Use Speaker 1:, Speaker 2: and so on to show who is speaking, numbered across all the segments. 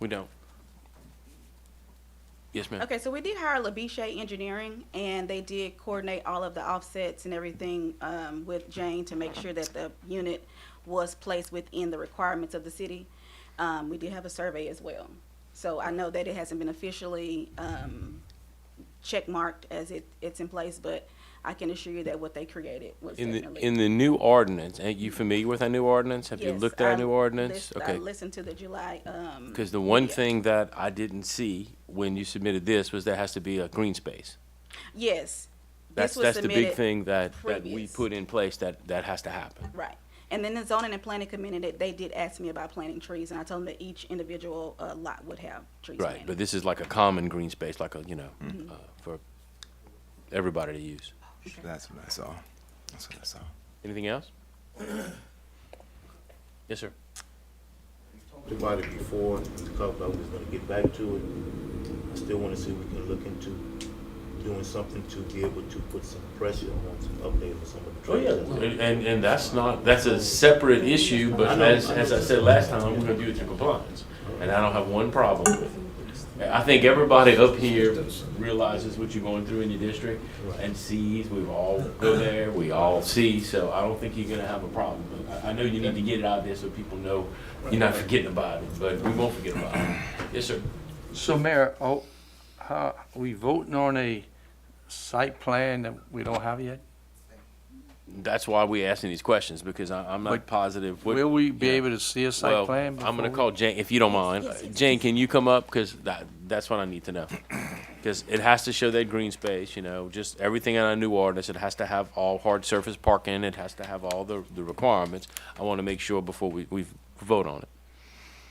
Speaker 1: We don't. Yes, ma'am.
Speaker 2: Okay, so we did hire Labiche Engineering, and they did coordinate all of the offsets and everything um, with Jane to make sure that the unit was placed within the requirements of the city. Um, We did have a survey as well. So I know that it hasn't been officially um, checkmarked as it, it's in place, but I can assure you that what they created was
Speaker 1: In
Speaker 2: definitely.
Speaker 1: the, in the new ordinance, are you familiar with our new ordinance? Have you
Speaker 2: Yes,
Speaker 1: looked at our
Speaker 2: I
Speaker 1: new ordinance?
Speaker 2: lis- I
Speaker 1: Okay.
Speaker 2: listened to the July. um,
Speaker 1: Because the one
Speaker 2: media.
Speaker 1: thing that I didn't see when you submitted this was there has to be a green space.
Speaker 2: Yes. This
Speaker 1: That's,
Speaker 2: was
Speaker 1: that's the big
Speaker 2: submitted-
Speaker 1: thing that, that we
Speaker 2: previous.
Speaker 1: put in place that, that has to happen.
Speaker 2: Right. And then the zoning and planning committee, they did ask me about planting trees, and I told them that each individual uh, lot would have trees
Speaker 1: Right, but
Speaker 2: planted.
Speaker 1: this is like a common green space, like a, you know,
Speaker 2: Mm-hmm.
Speaker 1: uh, for everybody to use.
Speaker 3: That's what I saw. That's what I saw.
Speaker 1: Anything else? Yes, sir.
Speaker 4: talked about it before, we talked about we was gonna get back to it. I still wanna see if we can look into doing something to be able to put some pressure on some update for some of
Speaker 1: Oh,
Speaker 4: the trails.
Speaker 1: And, and that's not, that's a separate issue,
Speaker 4: I
Speaker 1: but
Speaker 4: know.
Speaker 1: as, as I said last time, we're gonna do it through compliance. And I don't have one problem with it. I think everybody up here realizes what you're going through in your district and sees, we've all go there, we all see, so I don't think you're gonna have a problem. But I, I know you need to get it out there so people know you're not forgetting about it, but we won't forget about it. Yes, sir.
Speaker 5: So Mayor, oh, how, we voting on a site plan that we don't have yet?
Speaker 1: That's why we asking these questions, because I, I'm
Speaker 5: But
Speaker 1: positive. what-
Speaker 5: Will we be
Speaker 1: yeah.
Speaker 5: able to see a site
Speaker 1: Well,
Speaker 5: plan?
Speaker 1: I'm
Speaker 5: before
Speaker 1: gonna
Speaker 5: we-
Speaker 1: call Jane, if you don't mind.
Speaker 2: yes, yes,
Speaker 1: Jane, can you come up? Because that, that's what I need to know. Because it has to show that green space, you know, just everything in our new ordinance. It has to have all hard surface parking. It has to have all the, the requirements. I want to make sure before we, we vote on it.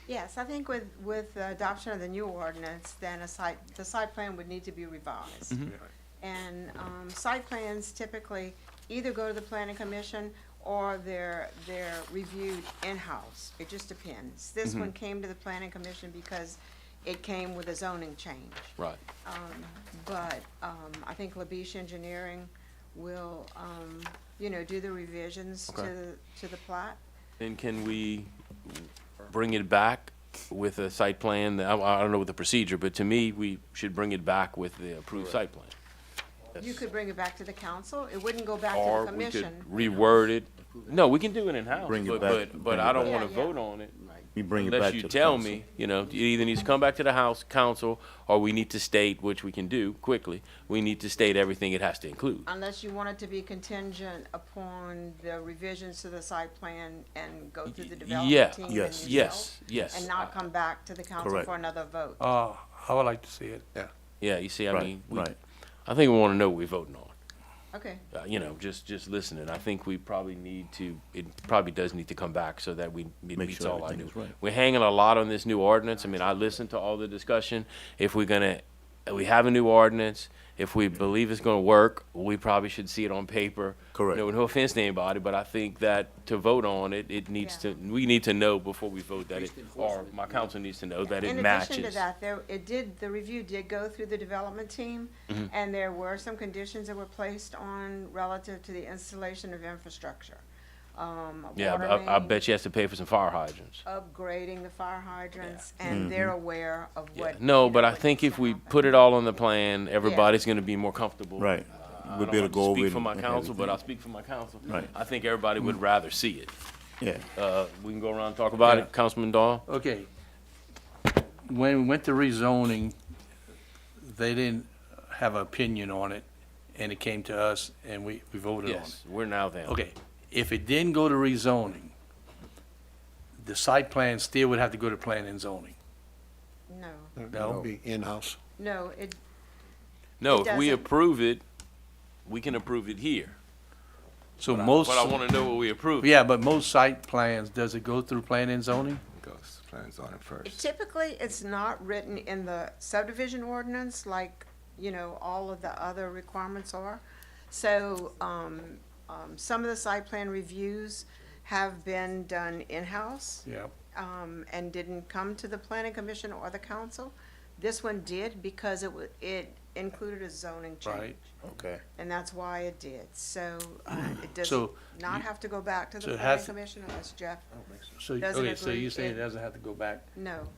Speaker 6: Yes, I think with, with the adoption of the new ordinance, then a site, the site plan would need to be revised. And, um, site plans typically either go to the planning commission or they're, they're reviewed in-house. It just depends. This one came to the planning commission because it came with a zoning change.
Speaker 1: Right.
Speaker 6: But, um, I think Labiche Engineering will, um, you know, do the revisions
Speaker 1: Okay.
Speaker 6: to, the to the plot.
Speaker 1: Then can we bring it back with a site plan? I, I don't know what the procedure, but to me, we should bring it back with the approved site plan.
Speaker 6: You could bring it back to the council. It wouldn't go back to
Speaker 1: Or
Speaker 6: the
Speaker 1: we
Speaker 6: commission.
Speaker 1: could reword it. No, we can do it in-house,
Speaker 4: Bring it
Speaker 1: but,
Speaker 4: back-
Speaker 1: but, but
Speaker 4: bring it
Speaker 1: I don't
Speaker 6: back.
Speaker 1: wanna
Speaker 6: Yeah, yeah.
Speaker 1: vote on it.
Speaker 4: You bring it back
Speaker 1: Unless
Speaker 4: to
Speaker 1: you
Speaker 4: the
Speaker 1: tell
Speaker 4: council.
Speaker 1: me, you know, it either needs to come back to the House, Council, or we need to state, which we can do quickly, we need to state everything it has to include.
Speaker 6: Unless you want it to be contingent upon the revisions to the site plan and go through the
Speaker 1: Yeah,
Speaker 6: development team and
Speaker 4: yes,
Speaker 6: yourself?
Speaker 1: yes, yes.
Speaker 6: And not come back to the council
Speaker 4: Correct.
Speaker 6: for another vote?
Speaker 5: Uh, I would like to see it, yeah.
Speaker 1: Yeah, you see, I
Speaker 4: Right,
Speaker 1: mean, we-
Speaker 4: right.
Speaker 1: I think we wanna know what we're voting on.
Speaker 6: Okay,
Speaker 1: Uh, you know, just, just listening, I think we probably need to, it probably does need to come back so that we, it
Speaker 4: Make
Speaker 1: meets
Speaker 4: sure
Speaker 1: all our
Speaker 4: everything
Speaker 1: new.
Speaker 4: is right.
Speaker 1: We're hanging a lot on this new ordinance, I mean, I listened to all the discussion, if we're gonna, we have a new ordinance, if we believe it's gonna work, we probably should see it on paper.
Speaker 4: Correct.
Speaker 1: No, no offense to anybody, but I think that to vote on it, it needs to,
Speaker 6: Yeah.
Speaker 1: we need to know before we vote that it, or my council needs to know that it
Speaker 6: in
Speaker 1: matches.
Speaker 6: addition to that, there, it did, the review did go through the development team,
Speaker 1: Mm-hmm.
Speaker 6: and there were some conditions that were placed on relative to the installation of infrastructure. Um,
Speaker 1: Yeah,
Speaker 6: water
Speaker 1: I- I, I
Speaker 6: main,
Speaker 1: bet you has to pay for some fire hydrants.
Speaker 6: Upgrading the fire hydrants, and they're aware of
Speaker 1: Mm-hmm. Yeah.
Speaker 6: what.
Speaker 1: No,
Speaker 6: you know,
Speaker 1: but I
Speaker 6: what
Speaker 1: think
Speaker 6: needs
Speaker 1: if
Speaker 6: to
Speaker 1: we
Speaker 6: happen.
Speaker 1: put it all on the plan, everybody's gonna be more comfortable.
Speaker 4: Right.
Speaker 1: I
Speaker 4: We'll
Speaker 1: don't
Speaker 4: be able
Speaker 1: want
Speaker 4: to go over.
Speaker 1: Speak
Speaker 4: it
Speaker 1: for my
Speaker 4: and
Speaker 1: council, but I'll
Speaker 4: everything.
Speaker 1: speak for my council.
Speaker 4: Right.
Speaker 1: I think everybody would
Speaker 6: Mm.
Speaker 1: rather see it.
Speaker 4: Yeah.
Speaker 1: Uh, we can go around and talk about
Speaker 5: Yeah.
Speaker 1: it, Councilman Dahl?
Speaker 5: Okay. When we went to rezoning, they didn't have an opinion on it, and it came to us, and we, we voted on it.
Speaker 1: Yes, we're now there.
Speaker 5: Okay, if it didn't go to rezoning, the site plan still would have to go to planning and zoning,
Speaker 6: No,
Speaker 5: no?
Speaker 7: be in-house.
Speaker 6: no, it,
Speaker 1: No,
Speaker 6: It
Speaker 1: if we
Speaker 6: doesn't.
Speaker 1: approve it, we can approve it here.
Speaker 5: So
Speaker 1: But I-
Speaker 5: most.
Speaker 1: But I wanna know what we approve.
Speaker 5: Yeah, but most site plans, does it go through planning and zoning?
Speaker 3: Ghost plans on it first.
Speaker 6: Typically, it's not written in the subdivision ordinance like, you know, all of the other requirements are. So, um, um, some of the site plan reviews have been done in-house,
Speaker 5: Yeah.
Speaker 6: um, and didn't come to the planning commission or the council. This one did because it wa, it included a zoning change.
Speaker 5: Right.
Speaker 4: Okay.
Speaker 6: And that's why it did, so, uh, it does
Speaker 5: So
Speaker 6: not have to go back to
Speaker 5: so
Speaker 6: the
Speaker 5: it
Speaker 6: planning
Speaker 5: has-
Speaker 6: commission unless Jeff,
Speaker 5: So,
Speaker 6: Doesn't
Speaker 5: okay, so
Speaker 6: agree
Speaker 5: you're saying it
Speaker 6: in-
Speaker 5: doesn't have to go back
Speaker 6: no.